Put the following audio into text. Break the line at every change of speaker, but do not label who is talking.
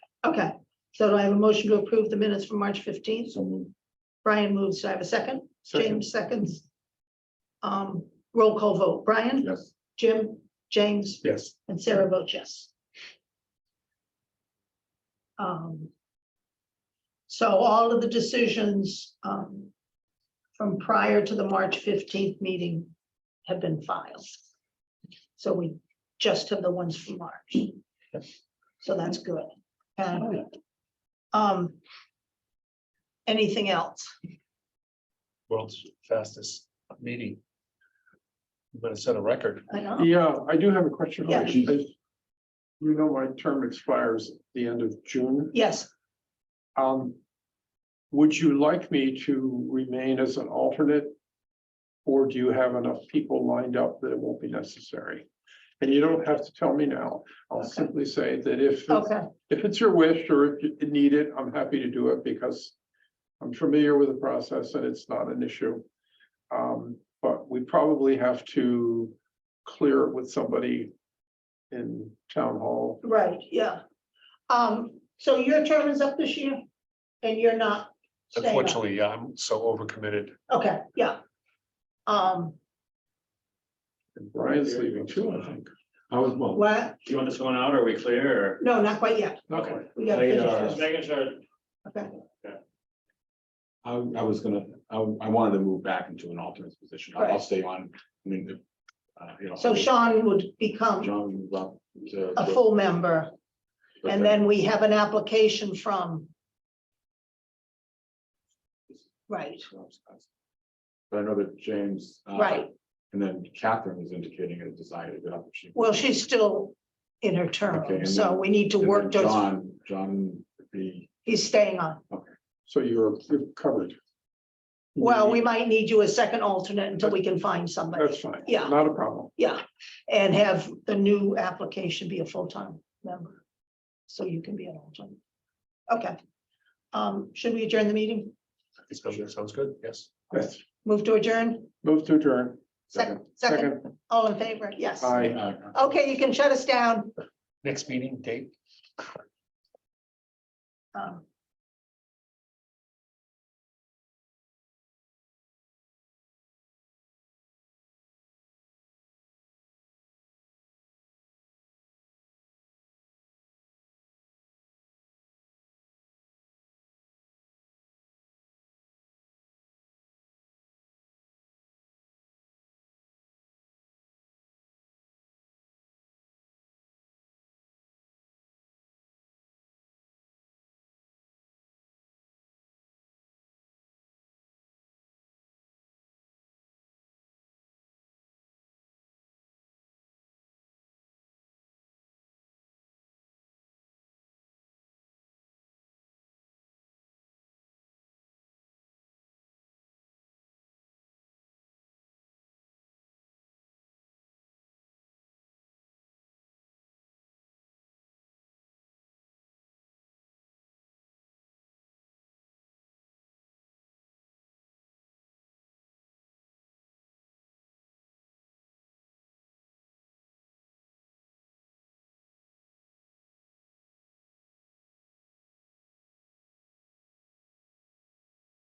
So do I have a motion to approve the minutes from March fifteenth?
So moved.
Brian moves. Do I have a second?
Second.
James seconds. Um, roll call vote. Brian,
Yes.
Jim, James,
Yes.
and Sarah votes yes. Um. So all of the decisions, um, from prior to the March fifteenth meeting have been filed. So we just have the ones from March. So that's good. And, um, anything else?
World's fastest meeting. I'm gonna set a record.
I know.
Yeah, uh, I do have a question.
Yeah.
I- You know, my term expires at the end of June.
Yes,
Um, would you like me to remain as an alternate? Or do you have enough people lined up that it won't be necessary? And you don't have to tell me now. I'll
Okay.
simply say that if,
okay.
if it's your wish or if you need it, I'm happy to do it because I'm familiar with the process and it's not an issue. Um, but we probably have to clear it with somebody in town hall.
Right, yeah. Um, so your term is up this year and you're not staying on?
Unfortunately, yeah, I'm so overcommitted.
Okay, yeah. Um,
And Brian's leaving too, I think.
I was, well,
what?
do you want this one out? Are we clear? or-
No, not quite yet.
Okay.
We gotta finish
Just
this.
making sure.
Okay,
I, I was gonna, I, I wanted to move back into an alternate position. I'll- I'll
Right.
stay on, I mean, if, uh, you know.
so Sean would become
John moved up to.
a full member and then we have an application from. Right,
But I know that James. uh,
Right.
And then Catherine is indicating a desire to get up. if she-
well, she's still in her
Okay,
term,
and
so
then-
we need to
And then
work those,
John, John would be,
he's staying on.
So you're, you're covered.
Well, we might need you as second alternate until we can find somebody.
That's fine.
Yeah.
Not a problem.
Yeah, and have the new application be a full-time member. So you can be an alternate. Okay. Um, should we adjourn the meeting?
It's gonna- Sounds good, yes.
Yes.
Move to adjourn?
Move to adjourn.
Second, second, all in favor? Yes.
Aye.
uh,
Okay, you can shut us down.
Next meeting date,
Um,